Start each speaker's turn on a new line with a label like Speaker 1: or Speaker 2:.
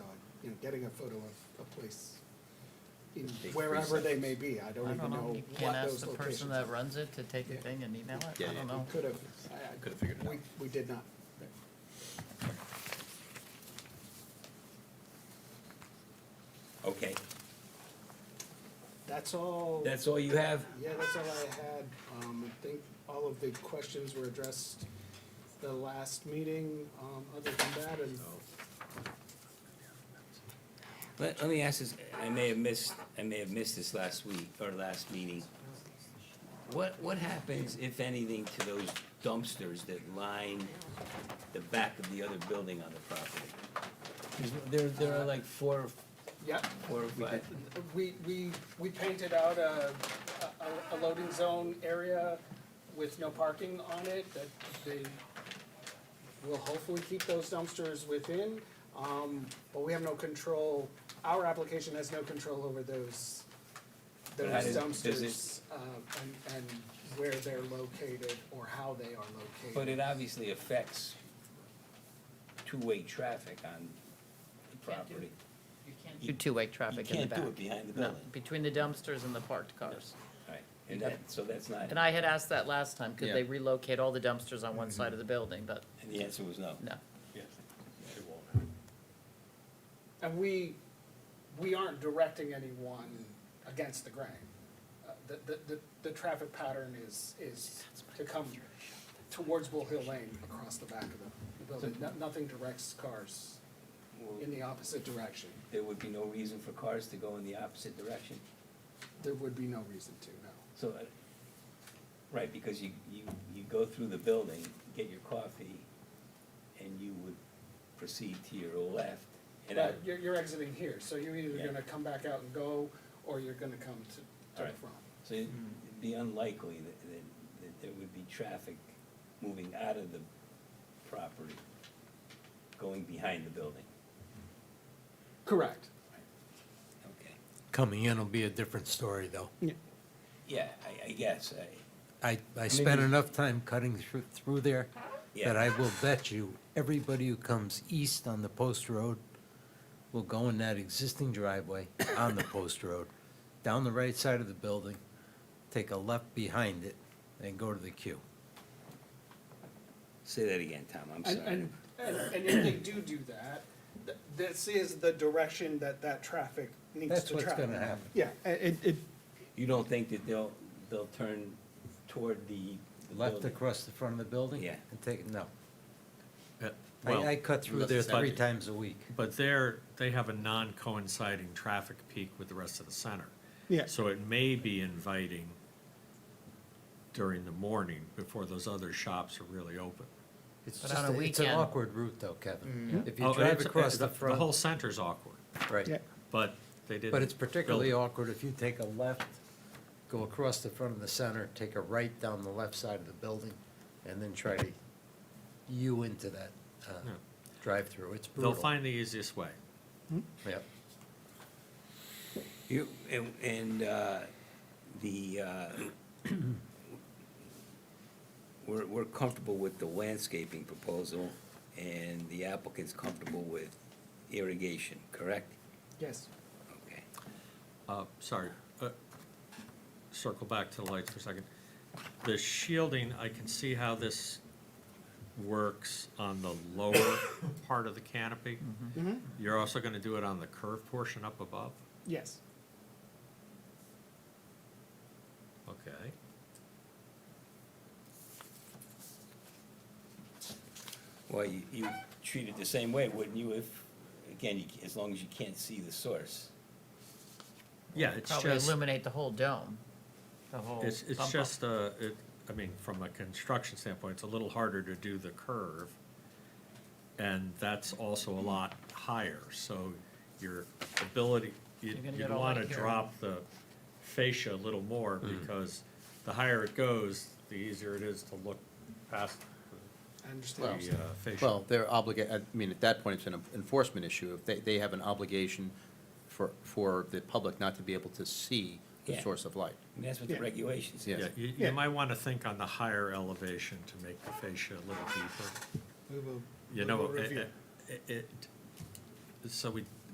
Speaker 1: getting a photo of a place in
Speaker 2: Take three
Speaker 1: wherever they may
Speaker 2: seconds.
Speaker 1: be. I don't
Speaker 3: I
Speaker 1: even
Speaker 3: don't know,
Speaker 1: know
Speaker 3: you
Speaker 1: what
Speaker 3: can't ask
Speaker 1: those
Speaker 3: the person
Speaker 1: locations
Speaker 3: that
Speaker 1: are.
Speaker 3: runs it to take a
Speaker 1: Yeah.
Speaker 3: thing and email it,
Speaker 2: Yeah,
Speaker 3: I
Speaker 2: yeah.
Speaker 3: don't know.
Speaker 1: Could have,
Speaker 2: Could've figured it
Speaker 1: we,
Speaker 2: out.
Speaker 1: we did not.
Speaker 2: Okay,
Speaker 1: That's all.
Speaker 2: that's all you have?
Speaker 1: Yeah, that's all I had. Um, I think all of the questions were addressed the last meeting, um, other than that, and
Speaker 2: Let, let me ask this, I may have missed, I may have missed this last week, or last meeting. What, what happens, if anything, to those dumpsters that line the back of the other building on the property? 'Cause there, there are like four,
Speaker 1: Yep,
Speaker 2: four or five,
Speaker 1: we, we, we painted out a, a, a loading zone area with no parking on it, that they will hopefully keep those dumpsters within, um, but we have no control, our application has no control over those, those
Speaker 2: But how does- does it-
Speaker 1: dumpsters, uh, and, and where they're located or how they are located.
Speaker 2: but it obviously affects two-way traffic on the property.
Speaker 3: You can't do two-way
Speaker 2: You
Speaker 3: traffic in the
Speaker 2: can't
Speaker 3: back.
Speaker 2: do it behind the
Speaker 3: No,
Speaker 2: building.
Speaker 3: between the dumpsters and the parked cars.
Speaker 2: Right, and that, so that's not,
Speaker 3: And I had asked that last time, could they
Speaker 2: Yeah. Mm-hmm.
Speaker 3: relocate all the dumpsters on one side of the building, but
Speaker 2: and the answer was no.
Speaker 3: no.
Speaker 4: Yes, it won't.
Speaker 1: And we, we aren't directing anyone against the grain. Uh, The, the, the, the traffic pattern is, is to come towards Bull Hill Lane across the back of the- the building. No- Nothing directs cars in the opposite direction.
Speaker 2: There would be no reason for cars to go in the opposite direction.
Speaker 1: There would be no reason to, no.
Speaker 2: So, uh, right, because you, you, you go through the building, get your coffee, and you would proceed to your left. And I,
Speaker 1: But you're, you're exiting here, so you're either
Speaker 2: Yeah.
Speaker 1: gonna come back out and go, or you're gonna come to, to the
Speaker 2: Alright.
Speaker 1: front.
Speaker 2: so it'd be unlikely that, that, that there would be traffic moving out of the property, going behind the building.
Speaker 1: Correct.
Speaker 2: Okay.
Speaker 5: Coming in will be a different story, though.
Speaker 2: Yeah, I, I guess, I,
Speaker 5: I, I spent
Speaker 2: Maybe-
Speaker 5: enough time cutting through, through there
Speaker 2: yeah.
Speaker 5: that I will bet you, everybody who comes east on the post road will go in that existing driveway on the post road, down the right side of the building, take a left behind it, and go to the queue.
Speaker 2: Say that again, Tom, I'm
Speaker 1: And,
Speaker 2: sorry.
Speaker 1: and, and and if they do do that, th- this is the direction that that traffic needs
Speaker 5: That's
Speaker 1: to travel.
Speaker 5: what's gonna happen.
Speaker 1: Yeah, a- it, it,
Speaker 2: You don't think that they'll, they'll turn toward the the
Speaker 5: Left
Speaker 2: building?
Speaker 5: across the front of the building?
Speaker 2: Yeah.
Speaker 5: And take, no.
Speaker 4: Yeah, Uh, well,
Speaker 5: I, I cut through there
Speaker 4: but-
Speaker 5: three times a week.
Speaker 4: But they're, they have a non-coinciding traffic peak with the rest of the center.
Speaker 1: Yeah.
Speaker 4: So it may be inviting during the morning before those other shops are really open.
Speaker 5: It's
Speaker 3: But
Speaker 5: just,
Speaker 3: on a
Speaker 5: a- it's an
Speaker 3: weekend- Mm.
Speaker 5: awkward route, though, Kevin. If
Speaker 4: Oh,
Speaker 5: you drive
Speaker 4: it's-
Speaker 5: across the
Speaker 4: The whole
Speaker 5: front,
Speaker 4: center's awkward,
Speaker 5: right.
Speaker 1: yeah,
Speaker 4: but they didn't.
Speaker 5: But it's particularly
Speaker 4: build
Speaker 5: awkward if you take a left, go across the front of the center, take a right down the left side of the building, and then try to U into that uh,
Speaker 4: Yeah.
Speaker 5: drive-through. It's
Speaker 4: it. They'll
Speaker 5: brutal.
Speaker 4: find the easiest way.
Speaker 5: Yep.
Speaker 2: You, and, and, uh, the, uh, we're, we're comfortable with the landscaping proposal, and the applicant's comfortable with irrigation, correct?
Speaker 1: yes.
Speaker 2: Okay.
Speaker 4: Uh, Sorry, uh, circle back to the lights for a second. The shielding, I can see how this works on the lower part of the canopy.
Speaker 1: Mm-hmm,
Speaker 4: You're also going to do it on the curved portion up above?
Speaker 1: Yes.
Speaker 4: Okay.
Speaker 2: Well, you, you treat it the same way, wouldn't you, if, again, you ca- as long as you can't see the source?
Speaker 4: Yeah, it's
Speaker 3: Probably
Speaker 4: just,
Speaker 3: illuminate the whole dome, the whole
Speaker 4: it's,
Speaker 3: bump
Speaker 4: it's
Speaker 3: up.
Speaker 4: just a, it, I mean, from a construction standpoint, it's a little harder to do the curve. And that's also a lot higher, so your ability, you-
Speaker 3: You're gonna
Speaker 4: you'd
Speaker 3: get all
Speaker 4: wanna
Speaker 3: right here.
Speaker 4: drop the fascia a little more, because the higher it goes, the easier it is to look past
Speaker 1: I
Speaker 4: the uh,
Speaker 1: understand.
Speaker 6: Well,
Speaker 4: fascia.
Speaker 6: they're obligated, I mean, at that point, it's an enforcement issue. If they, they have an obligation for, for the public not to be able to see the
Speaker 2: Yeah.
Speaker 6: source of light.
Speaker 2: And that's what the
Speaker 1: Yeah.
Speaker 2: regulations say.
Speaker 4: Yeah,
Speaker 6: yes.
Speaker 4: you,
Speaker 1: Yeah.
Speaker 4: you might wanna think on the higher elevation to make the fascia a little deeper.
Speaker 1: We will-
Speaker 4: You
Speaker 1: we
Speaker 4: know, eh,
Speaker 1: will
Speaker 4: it,
Speaker 1: review.
Speaker 4: it- it, so we